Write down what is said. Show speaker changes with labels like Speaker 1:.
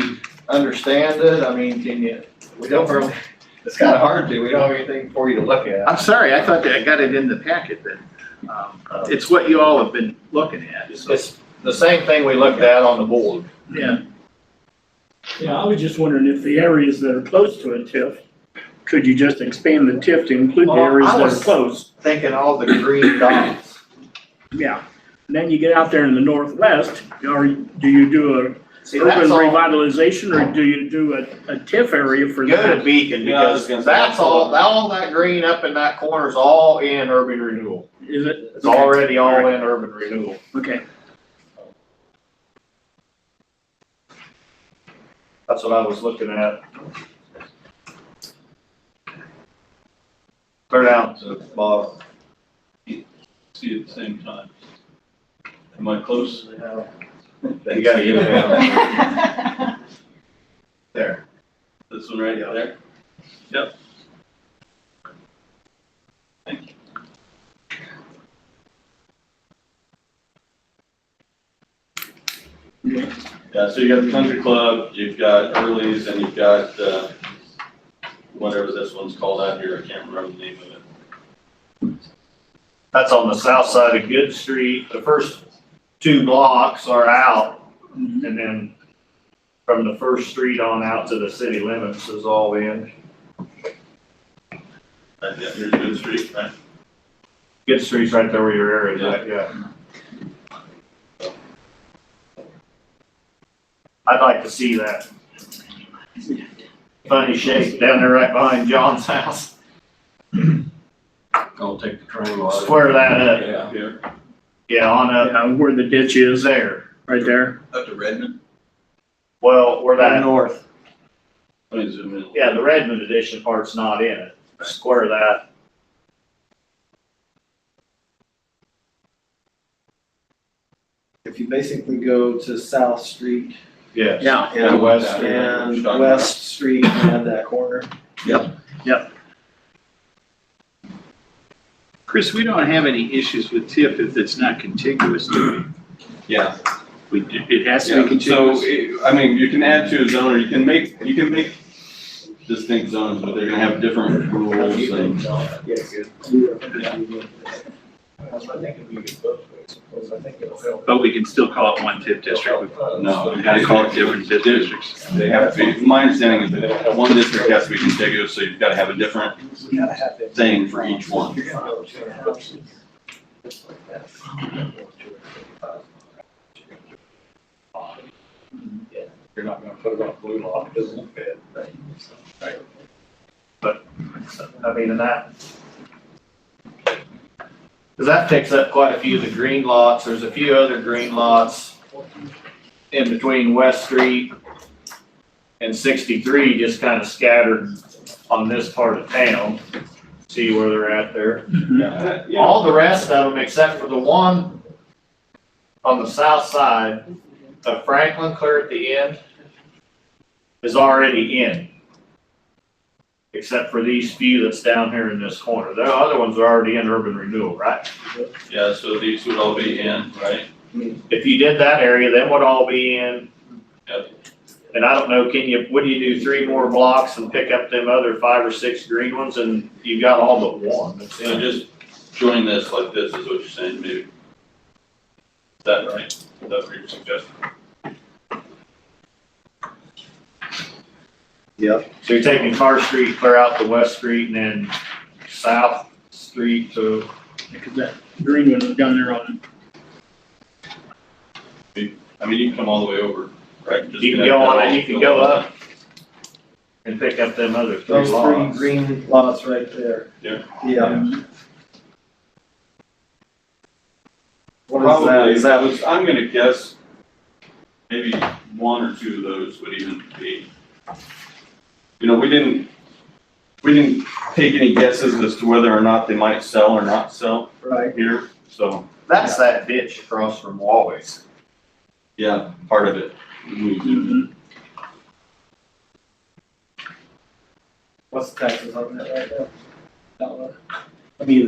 Speaker 1: we understand it? I mean, can you, we don't really, it's kind of hard to, we don't have anything for you to look at.
Speaker 2: I'm sorry, I thought that I got it in the packet then. Um, It's what you all have been looking at, so.
Speaker 1: It's the same thing we looked at on the board.
Speaker 2: Yeah,
Speaker 3: Yeah, I was just wondering if the areas that are close to a TIF, could you just expand the TIF to include the
Speaker 1: Well, I
Speaker 3: areas that are
Speaker 1: was-
Speaker 3: close?
Speaker 1: Thinking all the green dots.
Speaker 3: Yeah. And then you get out there in the northwest, or do you do a
Speaker 1: See,
Speaker 3: urban
Speaker 1: that's all,
Speaker 3: revitalization, or do you do a, a TIF area for
Speaker 1: Go to
Speaker 3: that?
Speaker 1: Beacon because that's all, that- all that green up in that corner is all in urban renewal.
Speaker 3: Is it?
Speaker 1: It's already all in urban renewal.
Speaker 3: Okay,
Speaker 1: That's what I was looking at. Clear down to the bottom.
Speaker 4: see at the same time. Am I close?
Speaker 1: You gotta get it down. There.
Speaker 4: This one right there? Yep. Thank you. Yeah, so you got the country club, you've got Early's, and you've got, uh, whatever this one's called out here, I can't remember the name of it.
Speaker 1: That's on the south side of Good Street. The first two blocks are out. And then from the first street on out to the city limits is all in.
Speaker 4: Right, yeah, here's Good Street, right?
Speaker 1: Good Street's right there where your area is at, yeah. I'd like to see that funny shape down there right behind John's house.
Speaker 4: I'll take the triangle
Speaker 1: Square that up.
Speaker 4: Yeah, here,
Speaker 1: Yeah, on up,
Speaker 3: yeah, where the ditch
Speaker 1: is
Speaker 3: is,
Speaker 1: there.
Speaker 3: right there.
Speaker 4: up to Redmond.
Speaker 1: Well, where that. North.
Speaker 4: Let me zoom in.
Speaker 1: Yeah, the Redmond edition part's not in it. Square that.
Speaker 5: If you basically go to South Street
Speaker 1: Yes.
Speaker 3: Yeah.
Speaker 4: Yeah,
Speaker 5: and
Speaker 4: West
Speaker 5: West,
Speaker 4: Street.
Speaker 5: and West Street and that corner.
Speaker 2: Chris, we don't have any issues with TIF if it's not contiguous, do
Speaker 4: Yeah.
Speaker 2: we? We, it has to be
Speaker 4: Yeah, so,
Speaker 2: contiguous.
Speaker 4: it- I mean, you can add to a zone, or you can make, you can make distinct zones, but they're gonna have different rules and.
Speaker 5: Yes.
Speaker 4: Yeah.
Speaker 5: That's what I think it'd be good both ways, because I think it'll help.
Speaker 2: But we can still call it one TIF district.
Speaker 4: No.
Speaker 2: We gotta call it different TIF districts.
Speaker 4: They have to be, my understanding is that one district has to be contiguous, so you've gotta have a different
Speaker 5: You gotta have that.
Speaker 4: thing for each one.
Speaker 5: You're gonna go to a house. Just like that.
Speaker 1: You're not gonna put it on a blue lot, it doesn't fit. But, I mean, and that. Cause that takes up quite a few of the green lots, there's a few other green lots in between West Street and sixty-three, just kinda scattered on this part of town. See where they're at there.
Speaker 4: Yeah. Yeah.
Speaker 1: All the rest of them, except for the one on the south side of Franklin, clear at the end, is already in. Except for these few that's down here in this corner. The other ones are already in urban renewal, right?
Speaker 4: Yeah, so these would all be in, right?
Speaker 1: If you did that area, that would all be in.
Speaker 4: Yep.
Speaker 1: And I don't know, can you, would you do three more blocks and pick up them other five or six green ones and you've got all but one that's
Speaker 4: So
Speaker 1: in?
Speaker 4: just join this like this is what you're saying, maybe. Is that right? Is that what you're suggesting?
Speaker 1: So you're taking Car Street, clear out to West Street and then South Street to
Speaker 3: Because that green one was down there on,
Speaker 4: I mean, you can come all the way over, right? Just
Speaker 1: You can go
Speaker 4: connect that
Speaker 1: on,
Speaker 4: all-
Speaker 1: it, you can go up and pick up them other three
Speaker 5: Those three
Speaker 1: lots.
Speaker 5: green lots right there.
Speaker 4: Yeah.
Speaker 5: Yeah. What is that?
Speaker 4: Probably,
Speaker 5: Is that,
Speaker 4: those- I'm gonna guess maybe one or two of those would even be. You know, we didn't, we didn't take any guesses as to whether or not they might sell or not sell
Speaker 5: right?
Speaker 4: here, so,
Speaker 1: That's that ditch across from Wally's.
Speaker 4: yeah, part of it.
Speaker 3: um,
Speaker 4: We-
Speaker 5: What's the taxes on that right now? That one? I mean,